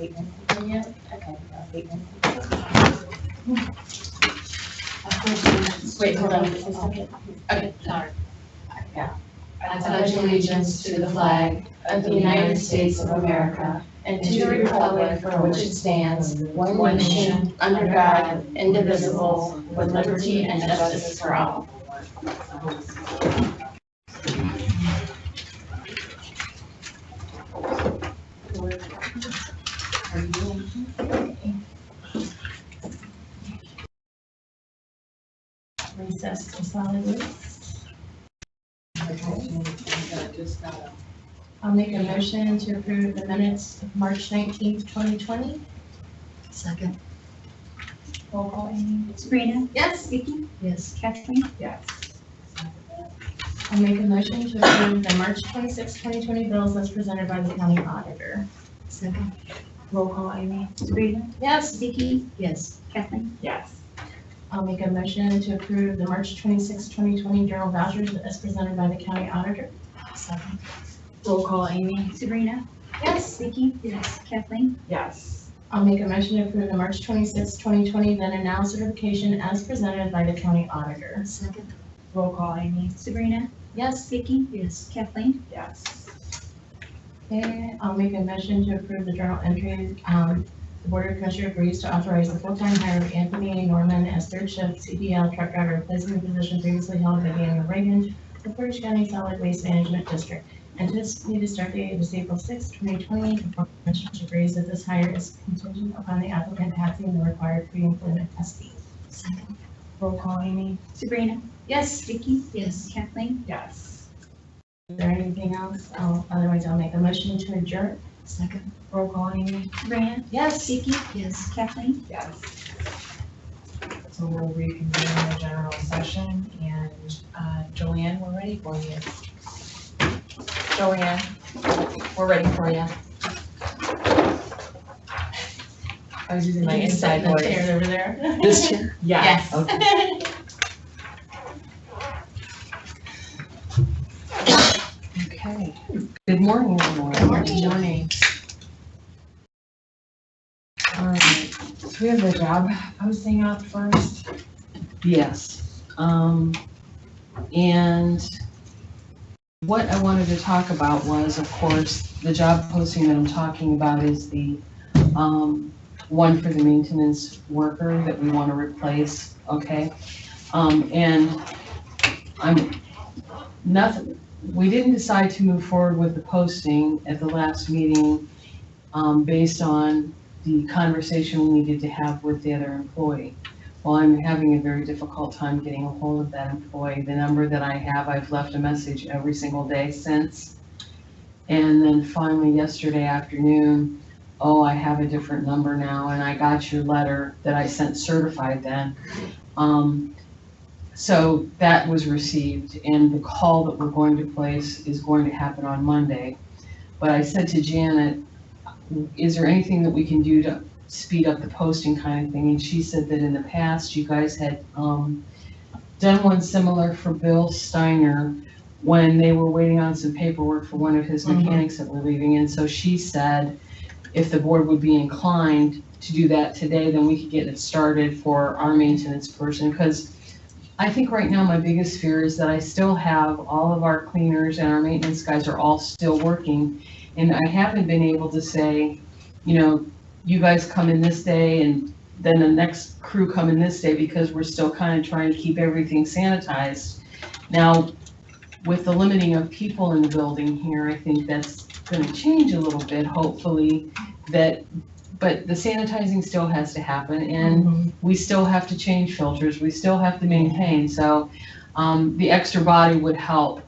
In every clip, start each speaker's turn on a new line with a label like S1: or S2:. S1: eight one seven yet? Okay, uh, eight one. Wait, hold on just a second.
S2: Okay, sorry.
S1: Yeah.
S2: I pledge allegiance to the flag of the United States of America and to the republic for which it stands, one nation, under God, indivisible, with liberty and justice for all.
S1: Recess to solid waste. I'll make a motion to approve the minutes of March nineteenth, twenty twenty.
S3: Second.
S1: Roll call, Amy.
S4: Sabrina,
S1: Yes.
S4: Vicky,
S3: Yes.
S4: Kathleen,
S1: Yes. I'll make a motion to approve the March twenty sixth, twenty twenty bills as presented by the county auditor.
S3: Second.
S1: Roll call, Amy.
S4: Sabrina,
S1: Yes.
S4: Vicky,
S3: Yes.
S4: Kathleen,
S1: Yes. I'll make a motion to approve the March 26, 2020 journal vouchers as presented by the county auditor.
S3: Second.
S1: Roll call, Amy.
S4: Sabrina,
S1: Yes.
S4: Vicky, yes, Kathleen,
S1: Yes. I'll make a motion to approve the March 26, 2020 then and now certification as presented by the county auditor.
S3: Second.
S1: Roll call, Amy.
S4: Sabrina,
S1: Yes.
S4: Vicky,
S3: Yes.
S4: Kathleen,
S1: Yes. Okay, I'll make a motion to approve the journal entries. Um, the Board of Commissioners agrees to authorize the full-time hire of Anthony A. Norman as third shift CDL truck driver replacement position previously held by Daniel Reagan of Portage County Solid Waste Management District. Anticipated start date is April 6, 2020. The Board of Commissioners agrees that this hire is contingent upon the applicant passing the required pre-employment testing.
S3: Second.
S1: Roll call, Amy.
S4: Sabrina,
S1: Yes.
S4: Vicky,
S3: Yes.
S4: Kathleen,
S1: Yes. Is there anything else? I'll- Otherwise, I'll make a motion to adjourn.
S3: Second.
S1: Roll call, Amy.
S4: Sabrina,
S1: Yes.
S4: Vicky,
S3: Yes.
S4: Kathleen,
S5: Yes. So we'll reconvene the general session and uh, Joanne, we're ready for you. Joanne, we're ready for you. I was using my
S1: You can sit
S5: inside
S1: in the
S5: voice.
S1: chairs over there.
S5: This chair? Yeah.
S1: Yes.
S5: Okay. Okay. Good morning, everyone.
S1: morning.
S5: morning. All right, so we have the job posting out first.
S6: Yes, um, and what I wanted to talk about was, of course, the job posting that I'm talking about is the, um, one for the maintenance worker that we want to replace, okay? Um, and I'm, nothing, we didn't decide to move forward with the posting at the last meeting, um, based on the conversation we needed to have with the other employee. Well, I'm having a very difficult time getting a hold of that employee. The number that I have, I've left a message every single day since. And then finally yesterday afternoon, oh, I have a different number now and I got your letter that I sent certified then. Um, so that was received and the call that we're going to place is going to happen on Monday. But I said to Janet, is there anything that we can do to speed up the posting kind of thing, and she said that in the past, you guys had, um, done one similar for Bill Steiner when they were waiting on some paperwork for one of his mechanics that were leaving, and so she said if the board would be inclined to do that today, then we could get it started for our maintenance person, because I think right now my biggest fear is that I still have all of our cleaners and our maintenance guys are all still working, and I haven't been able to say, you know, you guys come in this day and then the next crew come in this day because we're still kind of trying to keep everything sanitized. Now, with the limiting of people in the building here, I think that's gonna change a little bit, hopefully, that, but the sanitizing still has to happen and
S5: Um,
S6: we still have to change filters, we still have to maintain, so, um, the extra body would help.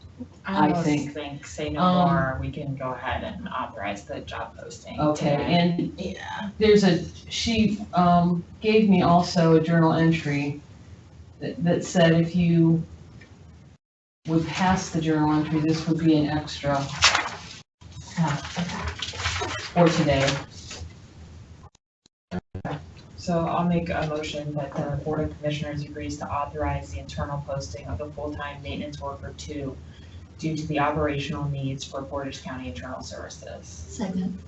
S6: I
S2: almost
S6: think-
S2: say
S6: Um,
S2: we can go ahead and authorize the job posting.
S6: Okay,
S2: today.
S6: and there's a, she, um, gave me also a journal entry that, that said if you would pass the journal entry, this would be an extra for today.
S5: So I'll make a motion that the Board of Commissioners agrees to authorize the internal posting of the full-time maintenance worker two due to the operational needs for Portage County Internal Services.
S3: Second.